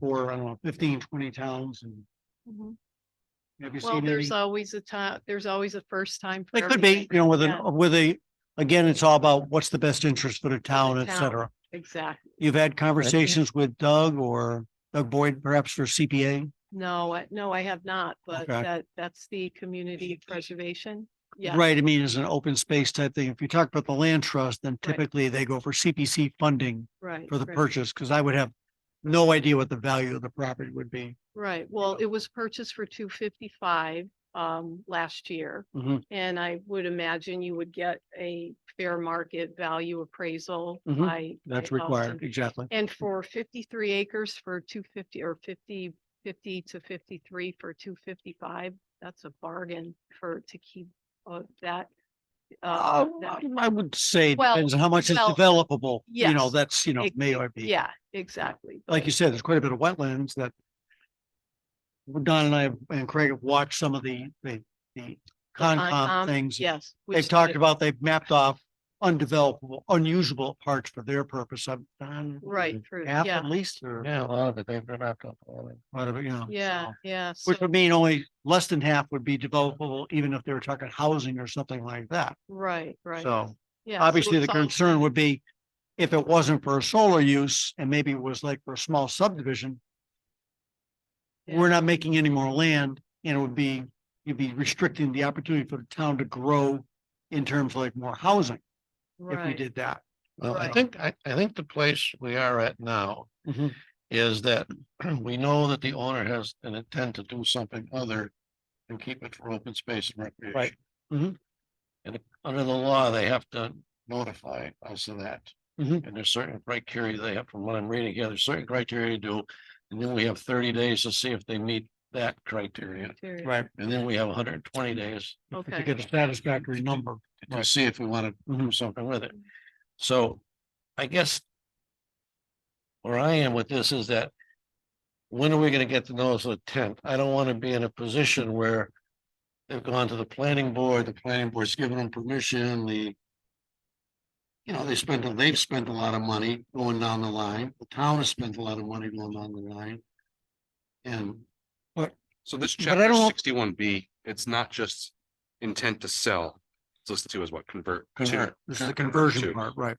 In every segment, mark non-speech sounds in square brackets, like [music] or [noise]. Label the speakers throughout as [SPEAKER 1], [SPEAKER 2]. [SPEAKER 1] for, I don't know, 15, 20 towns and have you
[SPEAKER 2] Mm-hmm. Well,
[SPEAKER 1] seen any?
[SPEAKER 2] there's always a time, there's always a first time. for
[SPEAKER 1] It could be,
[SPEAKER 2] everything.
[SPEAKER 1] you know, with
[SPEAKER 2] Yeah.
[SPEAKER 1] an, with a, again, it's all about what's the best interest for the town, et
[SPEAKER 2] town.
[SPEAKER 1] cetera.
[SPEAKER 2] Exactly.
[SPEAKER 1] You've had conversations with Doug or Doug Boyd perhaps for CPA?
[SPEAKER 2] No, I- no, I have not, but
[SPEAKER 1] Okay.
[SPEAKER 2] that, that's the community preservation. Yeah.
[SPEAKER 1] Right, I mean, it's an open space type thing. If you talk about the land trust, then typically they go for CPC funding
[SPEAKER 2] Right.
[SPEAKER 1] for the
[SPEAKER 2] right,
[SPEAKER 1] purchase, because I would have no idea what the value of the property would be.
[SPEAKER 2] Right. Well, it was purchased for two fifty-five um last year.
[SPEAKER 1] Mhm.
[SPEAKER 2] And I would imagine you would get a fair market value appraisal
[SPEAKER 1] Mhm.
[SPEAKER 2] by.
[SPEAKER 1] That's
[SPEAKER 2] by um, Austin.
[SPEAKER 1] required, exactly.
[SPEAKER 2] And for fifty-three acres for two fifty or 50, 50 to fifty-three for two fifty-five, that's a bargain for, to keep uh, that. uh,
[SPEAKER 1] Uh,
[SPEAKER 2] that-
[SPEAKER 1] I would say,
[SPEAKER 2] Well,
[SPEAKER 1] depends on how much is
[SPEAKER 2] well,
[SPEAKER 1] developable, you know,
[SPEAKER 2] yes.
[SPEAKER 1] that's, you know,
[SPEAKER 2] Ex-
[SPEAKER 1] may or be.
[SPEAKER 2] Yeah, exactly.
[SPEAKER 1] like you said, there's quite a bit of wetlands that Don and I have- and Craig have watched some of the, the, the Concom
[SPEAKER 2] Concom,
[SPEAKER 1] things.
[SPEAKER 2] Yes. we
[SPEAKER 1] They've
[SPEAKER 2] should-
[SPEAKER 1] talked about, they've mapped off undevelopable, unusable parts for their purpose. I've done
[SPEAKER 2] Right, true,
[SPEAKER 1] half at
[SPEAKER 2] yeah,
[SPEAKER 1] least or
[SPEAKER 3] Yeah, a lot of it, they've been up to all of it.
[SPEAKER 1] whatever, you know.
[SPEAKER 2] yeah,
[SPEAKER 1] so-
[SPEAKER 2] yeah.
[SPEAKER 1] Which
[SPEAKER 2] so-
[SPEAKER 1] would mean only less than half would be developable, even if they were talking housing or something like that.
[SPEAKER 2] Right, right.
[SPEAKER 1] So
[SPEAKER 2] yeah, so
[SPEAKER 1] obviously the
[SPEAKER 2] it's all-
[SPEAKER 1] concern would be if it wasn't for solar use and maybe it was like for a small subdivision,
[SPEAKER 2] yeah,
[SPEAKER 1] we're not making any more land and it would be, you'd be restricting the opportunity for the town to grow in terms of like more housing if we
[SPEAKER 2] right,
[SPEAKER 1] did that.
[SPEAKER 3] Well, I
[SPEAKER 2] Right.
[SPEAKER 3] think, I, I think the place we are at now
[SPEAKER 1] Mhm.
[SPEAKER 3] is that [clears throat] we know that the owner has an intent to do something other and keep it for open space and recreation.
[SPEAKER 1] Mhm.
[SPEAKER 3] And under the law, they have to notify us of that.
[SPEAKER 1] Mhm.
[SPEAKER 3] And there's certain criteria they have, from what I'm reading here, there's certain criteria to do. And then we have thirty days to see if they meet that criteria.
[SPEAKER 2] interior,
[SPEAKER 1] Right.
[SPEAKER 3] And then we have hundred and twenty days
[SPEAKER 1] To
[SPEAKER 2] Okay,
[SPEAKER 1] get a satisfactory number.
[SPEAKER 3] to see if we want to do something with it. Mm-hmm. So I guess where I am with this is that when are we gonna get to notice of intent? I don't want to be in a position where they've gone to the planning board, the planning board's given them permission, the you know, they spent, they've spent a lot of money going down the line. The town has spent a lot of money going down the line. And
[SPEAKER 4] So this
[SPEAKER 1] But I
[SPEAKER 4] chapter
[SPEAKER 1] don't-
[SPEAKER 4] sixty-one B, it's not just intent to sell. It's listed to as what convert to.
[SPEAKER 3] Convert.
[SPEAKER 1] This is the conversion
[SPEAKER 4] Two.
[SPEAKER 1] part, right?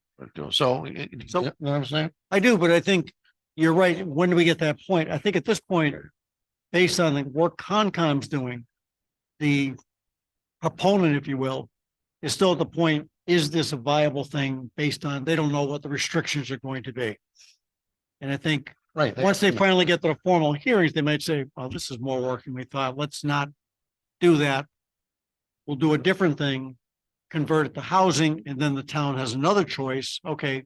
[SPEAKER 3] so, you know
[SPEAKER 1] So-
[SPEAKER 3] what I'm saying?
[SPEAKER 1] I do, but I think you're right. When do we get that point? I think at this point, based on like what Concom's doing, the proponent, if you will, is still at the point, is this a viable thing based on, they don't know what the restrictions are going to be. And I think
[SPEAKER 3] Right.
[SPEAKER 1] Once they finally get to the formal hearings, they might say, well, this is more work than we thought. Let's not do that. We'll do a different thing, convert it to housing, and then the town has another choice. Okay.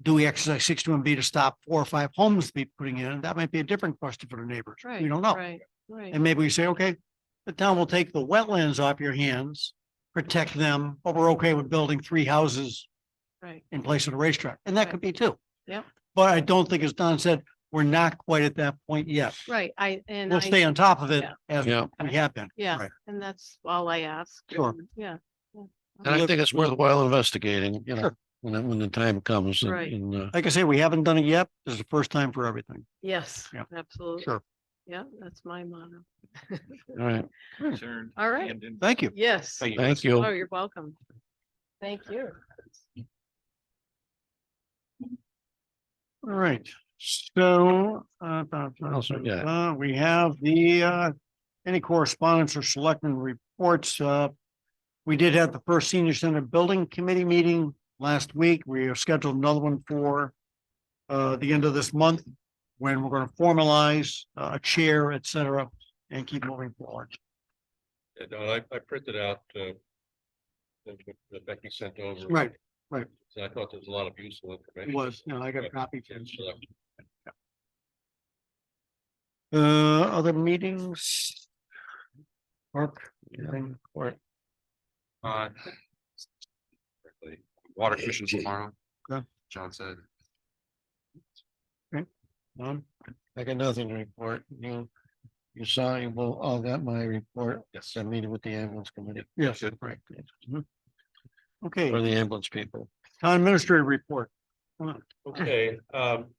[SPEAKER 1] Do we exercise sixty-one B to stop four or five homes to be putting in? That might be a different question for the neighbors.
[SPEAKER 2] right.
[SPEAKER 1] We don't know.
[SPEAKER 2] Right, right,
[SPEAKER 1] And maybe we say, okay, the town will take the wetlands off your hands, protect them, but we're okay with building three houses
[SPEAKER 2] right.
[SPEAKER 1] in place of the racetrack, and that
[SPEAKER 2] Right.
[SPEAKER 1] could be too.
[SPEAKER 2] Yeah.
[SPEAKER 1] But I don't think, as Don said, we're not quite at that point yet.
[SPEAKER 2] Right, I, and
[SPEAKER 1] We'll
[SPEAKER 2] I-
[SPEAKER 1] stay on top of it
[SPEAKER 2] Yeah.
[SPEAKER 1] as
[SPEAKER 3] Yeah.
[SPEAKER 1] we have been.
[SPEAKER 2] Yeah,
[SPEAKER 1] Right.
[SPEAKER 2] and that's all I ask.
[SPEAKER 1] Sure.
[SPEAKER 2] and, Yeah,
[SPEAKER 3] And I
[SPEAKER 1] Look-
[SPEAKER 3] think it's worthwhile investigating, you know,
[SPEAKER 1] Sure.
[SPEAKER 3] when, it- when the time comes and,
[SPEAKER 2] Right.
[SPEAKER 3] and, uh,
[SPEAKER 1] Like I say, we haven't done it yet. This is the first time for everything.
[SPEAKER 2] yes,
[SPEAKER 1] Yeah,
[SPEAKER 2] absolutely.
[SPEAKER 1] sure.
[SPEAKER 2] Yeah, that's my motto.
[SPEAKER 3] all right,
[SPEAKER 2] Hmm. All right,
[SPEAKER 1] Thank you.
[SPEAKER 2] yes.
[SPEAKER 3] thank you.
[SPEAKER 2] Oh, you're welcome. Thank you.
[SPEAKER 1] All right, so, uh, ba- ba-
[SPEAKER 3] else we got?
[SPEAKER 1] uh, we have the, uh, any correspondence or selectmen reports, uh. We did have the first senior center building committee meeting last week. We have scheduled another one for. Uh, the end of this month, when we're gonna formalize uh, a chair, et cetera, and keep moving forward.
[SPEAKER 5] Yeah, no, I, I printed out, uh, that that Becky sent over.
[SPEAKER 1] Right, right.
[SPEAKER 5] So I thought there was a lot of useful
[SPEAKER 1] It
[SPEAKER 5] information.
[SPEAKER 1] was, no, I got a copy.
[SPEAKER 5] Yeah, so I-
[SPEAKER 1] Uh, other meetings? Mark? anything?
[SPEAKER 4] Uh, Water commission tomorrow.
[SPEAKER 1] Okay.
[SPEAKER 4] John said.
[SPEAKER 1] None?
[SPEAKER 3] I got nothing to report. You, you saw, you will, all got my report.
[SPEAKER 4] Yes.
[SPEAKER 3] I meeting with the ambulance committee
[SPEAKER 1] Yes,
[SPEAKER 4] Good.
[SPEAKER 1] right. Okay,
[SPEAKER 3] or the ambulance people.
[SPEAKER 1] town administrator report. Come on.
[SPEAKER 5] Okay, um,